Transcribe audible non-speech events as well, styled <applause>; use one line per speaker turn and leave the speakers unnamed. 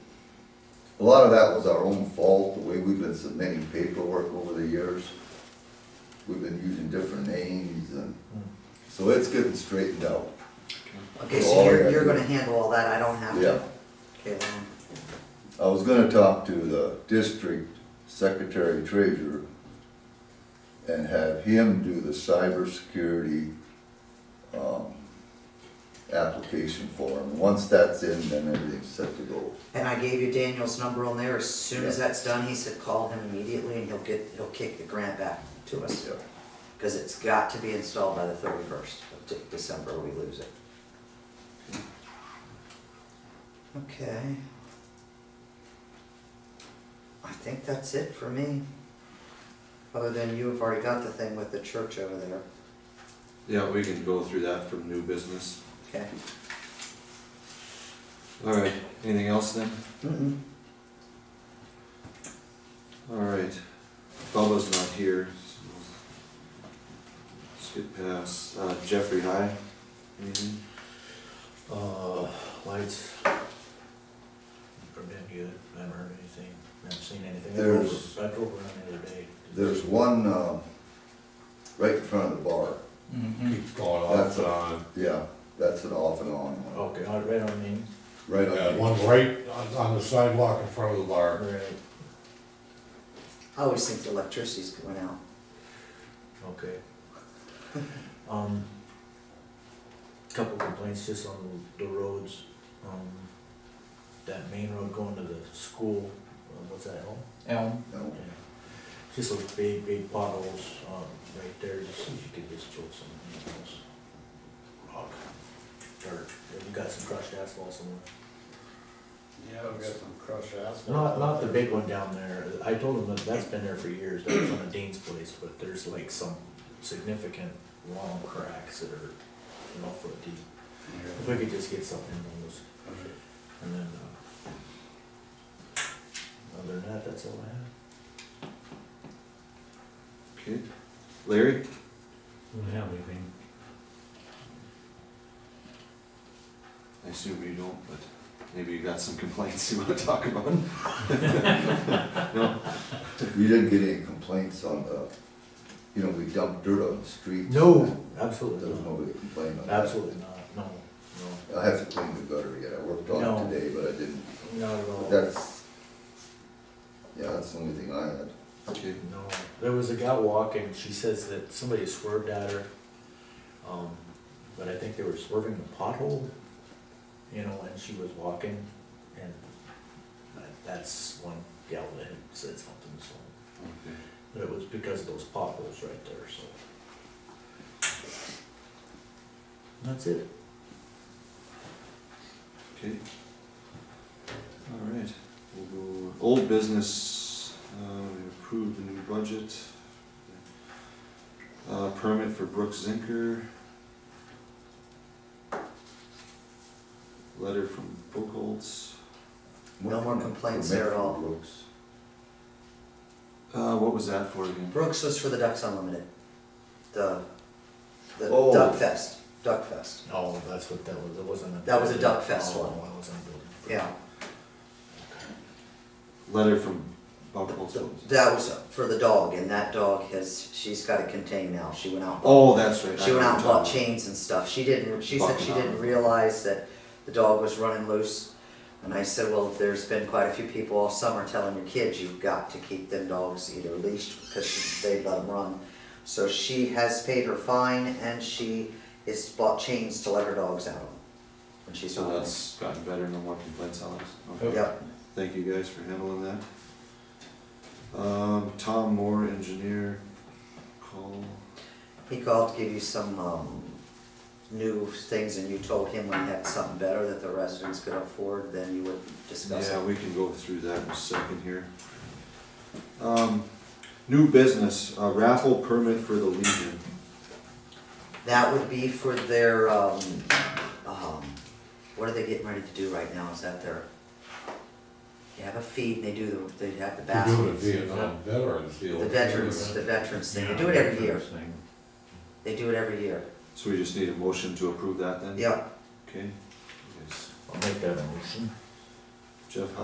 A lot of that was our own fault, the way we've been submitting paperwork over the years. We've been using different names and, so it's getting straightened out.
Okay, so
Oh, yeah.
you're, you're gonna handle all that, I don't have to?
Yeah.
Okay, well,
I was gonna talk to the district secretary treasurer and have him do the cybersecurity, um, application form. Once that's in, then everything's set to go.
and I gave you Daniel's number on there, as soon as that's done, he said, call him immediately and he'll get, he'll kick the grant back to us.
Yeah.
Cause it's got to be installed by the thirty-first of De- December, or we lose it. Okay. I think that's it for me. Other than you have already got the thing with the church over there,
Yeah, we can go through that from new business.
okay?
All right, anything else then?
Mm-mm.
All right, Bubba's not here. so Let's get past, uh, Jeffrey, hi. Anything?
Uh, lights are been good, I haven't heard anything, haven't seen anything. I drove-
There's-
I drove around the other day.
There's one, um, right in front of the bar.
Keeps going off
That's
and
a-
on.
Yeah, that's an off and on one.
Okay, I read on me,
Right
Yeah,
on,
one right on, on the sidewalk in front of the bar.
right,
I always think the electricity's going out.
okay.
<laughs>
Um, couple complaints just on the roads, um, that main road going to the school, uh, what's that, Elm?
Elm.
you know.
Yeah. Just those big, big potholes, um, right there, just if you could just throw some, you know, s- rock, dirt, if you got some crushed asphalt somewhere.
Yeah, we got some crushed asphalt.
Not, not the big one down there, I told him that that's been there for years, that was on a Dean's place, but there's like some significant long cracks that are, you know, foot deep. If we could just get something on those, and then, uh, other than that, that's all I have.
Okay, Larry?
Don't have anything.
I assume you don't, but maybe you got some complaints you wanna talk about. No?
We didn't get any complaints on the, you know, we dumped dirt on the streets.
Absolutely
There's
not,
nobody complaining on that.
absolutely not, no, no.
I have to clean the gutter yet, I worked
No.
on it today, but I didn't,
Not at all.
but that's, yeah, that's the only thing I had.
Okay,
No, there was a guy walking, she says that somebody swerved at her. Um, but I think they were swerving the pothole, you know, and she was walking and that- that's one gal that had said something, so.
okay.
But it was because of those potholes right there, so. That's it.
Okay. All right, we'll go, old business, uh, we approved the new budget. Uh, permit for Brooks Zinker. Letter from Buchholz.
No more complaints there at all.
Brooks.
Uh, what was that for again?
Brooks was for the Ducks Unlimited. The, the
Oh.
Duck Fest, Duck Fest,
Oh, that's what that was, it wasn't a.
That was a duck fest
Oh,
one.
it wasn't a building.
yeah.
Letter from Buchholz.
So That was for the dog, and that dog has, she's got it contained now, she went out.
Oh, that's right. I
She went out and bought
remember.
chains and stuff, she didn't, she said she
Bucking out.
didn't realize that the dog was running loose. And I said, well, there's been quite a few people all summer telling your kids you've got to keep them dogs either leashed because they let them run. So she has paid her fine and she is bought chains to let her dogs out on. When she's
So
on it.
that's gotten better, no more complaints on us. Okay.
Yep.
Thank you guys for handling that. Um, Tom Moore, engineer, call.
He called to give you some, um, new things and you told him when you had something better that the residents could afford, then you would discuss
Yeah,
it.
we can go through that in a second here. Um, new business, a raffle permit for the Legion.
That would be for their, um, um, what are they getting ready to do right now? Is that their? They have a feed and they do, the- they have the
We're doing a
baskets.
Vietnam veterans deal.
The veterans, the veterans thing, they do it every year, they do it every year.
So we just need a motion to approve that then?
Yep,
Okay. Yes.
I'll make that a motion.
Jeff,